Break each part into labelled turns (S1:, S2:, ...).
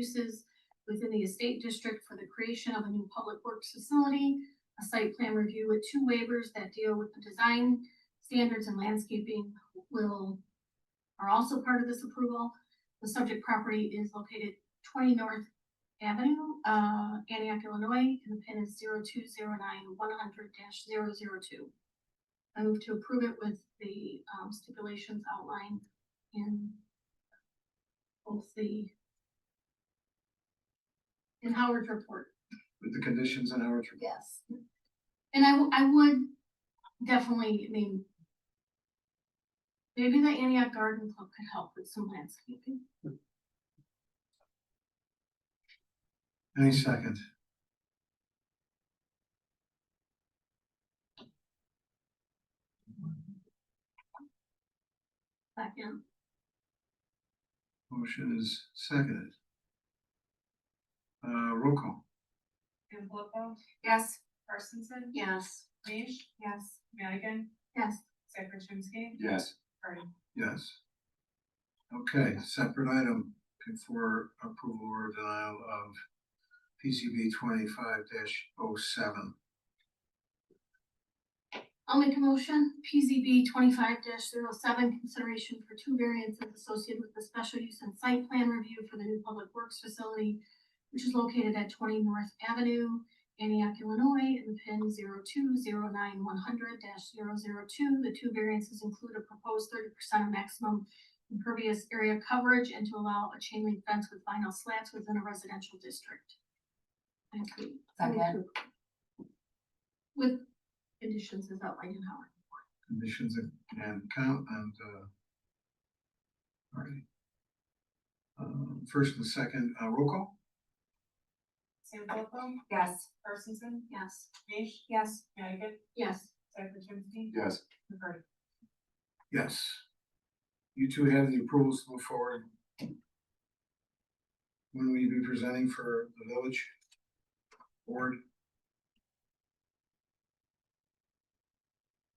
S1: uses within the estate district for the creation of a new public works facility, a site plan review with two waivers that deal with the design standards and landscaping will, are also part of this approval. The subject property is located twenty North Avenue, uh, Antioch, Illinois, and the pin is 0209 100 0 2 I move to approve it with the um, stipulations outlined in both the in Howard's report.
S2: with the conditions and hours.
S1: Yes. And I, w- I would definitely, I mean, maybe the Antioch Garden Club could help with some landscaping.
S2: Any second.
S1: Second,
S2: Motion is seconded. Uh, roll call.
S3: Campoco,
S1: yes,
S3: Parkinson,
S1: yes,
S3: Nish,
S1: yes,
S3: Madigan,
S1: yes.
S3: Saperchinsky,
S2: Yes.
S3: Harding.
S2: Yes. Okay, separate item for approval or denial of PCB twenty-five oh 7
S1: I'll make a motion, PZB twenty-five 7 consideration for two variances associated with the special use and site plan review for the new public works facility, which is located at twenty North Avenue, Antioch, Illinois, and pin 0209 100-002. The two variances include a proposed thirty percent of maximum impervious area coverage and to allow a chain link fence with vinyl slats within a residential district. I approve. I move to
S3: Second.
S1: approve. With conditions as outlined in Howard.
S2: conditions and- and count and, uh, all right. Um, first and second, uh, roll call?
S3: Campoco,
S4: Yes,
S3: Parkinson,
S1: Yes.
S3: Nish,
S4: yes,
S3: Madigan,
S1: Yes.
S3: Saperchinsky,
S2: Yes.
S3: Harding.
S2: Yes. You two have the approvals to move forward. When will you be presenting for the village board?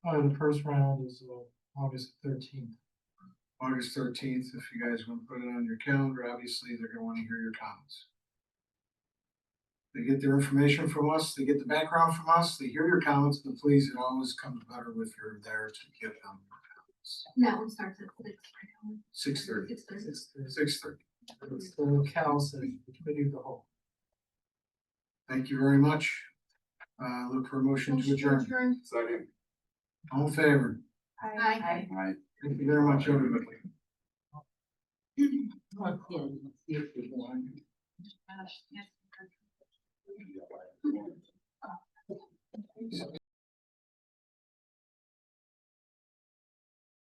S5: Uh, the first round is, uh, August thirteenth.
S2: August thirteenth, if you guys want to put it on your calendar, obviously, they're gonna wanna hear your comments. They get their information from us, they get the background from us, they hear your comments, but please, it always comes better if you're there to give them your comments.
S1: That one starts at six.
S2: Six thirty.
S1: Six thirty.
S5: It's, it's,
S2: Six thirty.
S5: it's the council, the committee of the whole.
S2: Thank you very much. Uh, look for a motion to adjourn.
S6: Second.
S2: All in favor?
S1: Aye.
S4: Aye.
S6: Aye.
S2: Thank you very much, everybody.
S1: Yes.